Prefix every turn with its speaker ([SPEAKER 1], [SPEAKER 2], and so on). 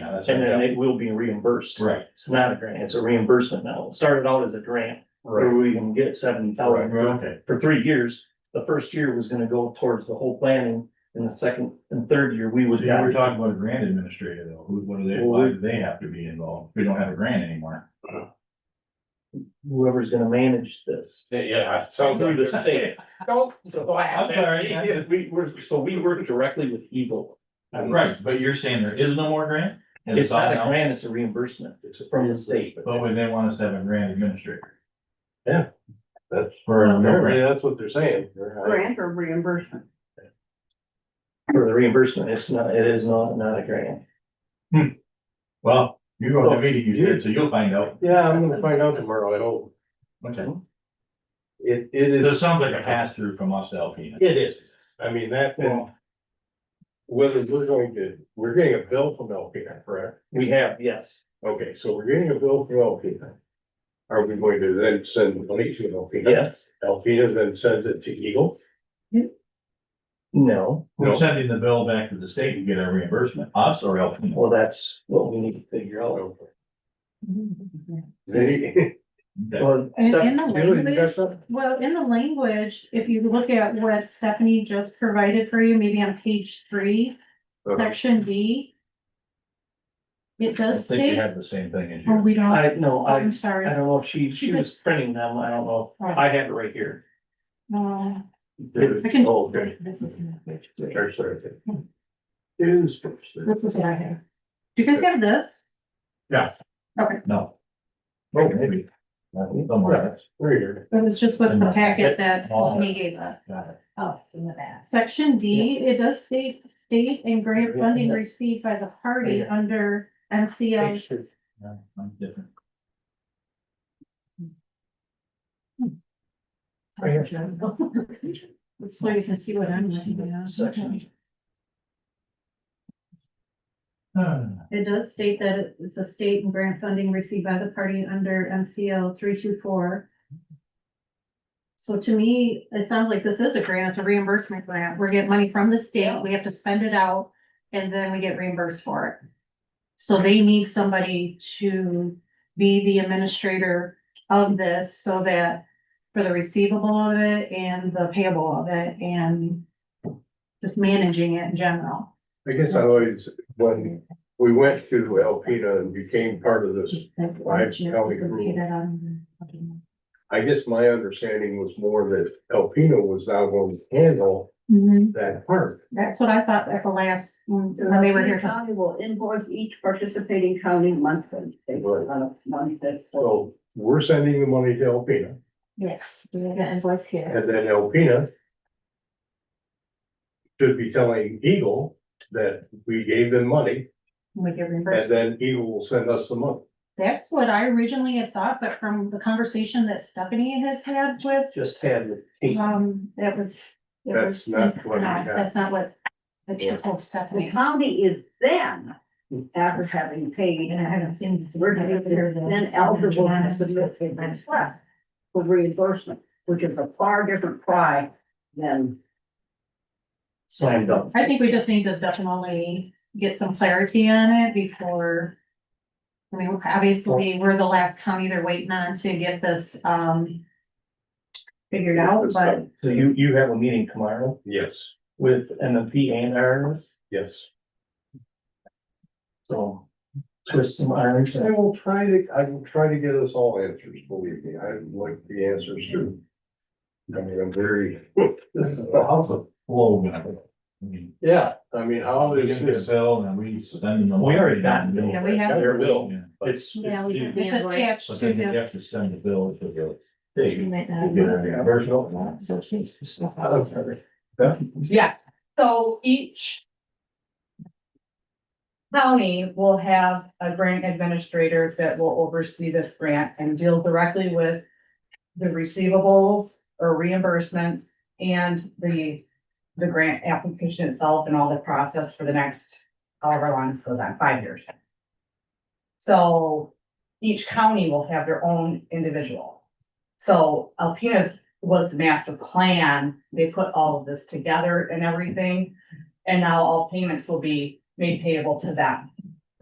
[SPEAKER 1] that's
[SPEAKER 2] and then
[SPEAKER 1] right.
[SPEAKER 2] it will be reimbursed.
[SPEAKER 1] Right.
[SPEAKER 2] It's not a grant, it's a reimbursement now. It started out as a grant, where we can get seventy
[SPEAKER 1] Right,
[SPEAKER 2] thousand for,
[SPEAKER 1] okay,
[SPEAKER 2] for three years. The first year was gonna go towards the whole planning, and the second and third year, we would.
[SPEAKER 1] yeah, we're talking about a grant administrator though, who, what do they, why do they have to be involved? We don't have a grant anymore.
[SPEAKER 2] Whoever's gonna manage this.
[SPEAKER 3] Yeah, it sounds
[SPEAKER 2] Through
[SPEAKER 3] like
[SPEAKER 2] the
[SPEAKER 3] this.
[SPEAKER 2] state.
[SPEAKER 3] Don't
[SPEAKER 2] So
[SPEAKER 3] laugh at me.
[SPEAKER 1] sorry.
[SPEAKER 2] we were, so we work directly with Eagle. on
[SPEAKER 1] Right,
[SPEAKER 2] this.
[SPEAKER 1] but you're saying there is no more grant? And
[SPEAKER 2] It's not a
[SPEAKER 1] all out?
[SPEAKER 2] grant, it's a reimbursement from the state.
[SPEAKER 1] But would they want us to have a grant administrator?
[SPEAKER 3] Yeah, that's-
[SPEAKER 1] For a
[SPEAKER 3] Apparently,
[SPEAKER 1] member,
[SPEAKER 3] that's what they're saying. They're- I-
[SPEAKER 4] grant or reimbursement.
[SPEAKER 2] For the reimbursement, it's not, it is not, not a grant.
[SPEAKER 1] well, you go to the meeting you did, so you'll find out.
[SPEAKER 3] Yeah, I'm gonna find out tomorrow, I hope.
[SPEAKER 1] Okay.
[SPEAKER 3] It, it is.
[SPEAKER 1] This sounds like a pass through from us to Alpena.
[SPEAKER 3] It is. I mean, that,
[SPEAKER 2] Well,
[SPEAKER 3] whether we're going to, we're getting a bill from Alpena, correct?
[SPEAKER 2] we have, yes.
[SPEAKER 3] Okay, so we're getting a bill from Alpena. Are we going to then send the money to Alpena?
[SPEAKER 2] Yes,
[SPEAKER 3] Alpena then sends it to Eagle?
[SPEAKER 2] no,
[SPEAKER 1] We're sending the bill back to the state to get our reimbursement, us or Alpena.
[SPEAKER 2] well, that's what we need to figure out.
[SPEAKER 3] They-
[SPEAKER 1] Okay.
[SPEAKER 2] Well,
[SPEAKER 4] And
[SPEAKER 2] step-
[SPEAKER 4] in the
[SPEAKER 3] Julie, you got
[SPEAKER 4] language,
[SPEAKER 3] something?
[SPEAKER 4] well, in the language, if you look at what Stephanie just provided for you, maybe on page three,
[SPEAKER 3] Okay.
[SPEAKER 4] section D. It
[SPEAKER 1] I
[SPEAKER 4] does
[SPEAKER 1] think we
[SPEAKER 4] state,
[SPEAKER 1] have the same thing as
[SPEAKER 4] oh,
[SPEAKER 1] you.
[SPEAKER 4] we don't,
[SPEAKER 2] I, no, I,
[SPEAKER 4] I'm
[SPEAKER 2] I
[SPEAKER 4] sorry.
[SPEAKER 2] don't know if she, she was printing them, I don't know, I have it right here.
[SPEAKER 4] No, I can-
[SPEAKER 3] Oh, okay.
[SPEAKER 4] This is,
[SPEAKER 3] Church Thursday. Is.
[SPEAKER 4] this is what I have. Do you guys have this?
[SPEAKER 1] No. Oh, maybe. Somewhere else.
[SPEAKER 3] Weird.
[SPEAKER 4] It was just with the packet that
[SPEAKER 1] Oh.
[SPEAKER 4] Stephanie gave us.
[SPEAKER 1] Got it.
[SPEAKER 4] Oh, in the back. Section D, it does state, state and grant funding received by the party
[SPEAKER 2] Yeah.
[SPEAKER 4] under MCL
[SPEAKER 1] No, I'm different.
[SPEAKER 2] Right here.
[SPEAKER 4] So you can see what I'm looking at.
[SPEAKER 2] Section. Hmm.
[SPEAKER 1] Ah,
[SPEAKER 4] It does state that it- it's a state and grant funding received by the party under MCL three two four. So to me, it sounds like this is a grant, it's a reimbursement grant. We're getting money from the state, we have to spend it out, and then we get reimbursed for it. So they need somebody to be the administrator of this so that for the receivable of it and the payable of it and just managing it in general.
[SPEAKER 3] I guess I always, when we went to Alpena and became part of this, Why can't we rule? I guess my understanding was more that Alpena was now going to handle
[SPEAKER 4] Mhm.
[SPEAKER 3] that part.
[SPEAKER 4] That's what I thought at the last, when when they were here.
[SPEAKER 5] The County will invoice each participating county monthly. based
[SPEAKER 3] Right.
[SPEAKER 5] on a month that's-
[SPEAKER 3] So we're sending the money to Alpena
[SPEAKER 6] Yes, we have the invoice here.
[SPEAKER 3] and then Alpena should be telling Eagle that we gave them money
[SPEAKER 4] We get
[SPEAKER 3] and
[SPEAKER 4] reimbursed.
[SPEAKER 3] then Eagle will send us the money.
[SPEAKER 4] That's what I originally had thought, but from the conversation that Stephanie has had with,
[SPEAKER 2] Just had the eight.
[SPEAKER 4] um, that was. it
[SPEAKER 3] That's
[SPEAKER 4] was-
[SPEAKER 3] not what we
[SPEAKER 4] No,
[SPEAKER 3] got.
[SPEAKER 4] That's not what, that she
[SPEAKER 3] Yeah.
[SPEAKER 4] told
[SPEAKER 5] The
[SPEAKER 4] Stephanie.
[SPEAKER 5] county is then, after having paid,
[SPEAKER 4] And I haven't seen. this.
[SPEAKER 5] we're gonna be then eligible to submit a request for reimbursement, which is a far different cry than.
[SPEAKER 2] signed up.
[SPEAKER 4] I think we just need to definitely get some clarity on it before. I mean, obviously, we're the last county they're waiting on to get this, um. Figured out, but
[SPEAKER 2] So you, you have a meeting tomorrow
[SPEAKER 3] Yes,
[SPEAKER 2] with MMP and RNs,
[SPEAKER 3] yes.
[SPEAKER 2] so twist some irons.
[SPEAKER 3] I will try to, I will try to get us all answers, believe me, I like the answers too. I mean, I'm very,
[SPEAKER 1] This is the house of flow. man. I mean,
[SPEAKER 3] yeah, I mean, how
[SPEAKER 1] We
[SPEAKER 3] is
[SPEAKER 1] get this
[SPEAKER 3] this?
[SPEAKER 1] bill and we send them.
[SPEAKER 2] Oh, We already got the bill.
[SPEAKER 4] yeah, we have,
[SPEAKER 3] Their bill,
[SPEAKER 1] Yeah, but-
[SPEAKER 2] It's,
[SPEAKER 6] Yeah, we
[SPEAKER 2] it's-
[SPEAKER 6] have-
[SPEAKER 4] it's attached
[SPEAKER 1] But
[SPEAKER 4] to
[SPEAKER 1] then you
[SPEAKER 4] the,
[SPEAKER 1] have to send the bill to the
[SPEAKER 6] You
[SPEAKER 1] state.
[SPEAKER 6] might
[SPEAKER 1] to
[SPEAKER 6] not.
[SPEAKER 1] get a reimbursement.
[SPEAKER 6] So she's-
[SPEAKER 7] Yeah, so each county will have a grant administrator that will oversee this grant and deal directly with the receivables or reimbursements and the, the grant application itself and all the process for the next however long this goes on, five years. So each county will have their own individual. So Alpena's was the master plan. They put all of this together and everything. And now all payments will be made payable to them.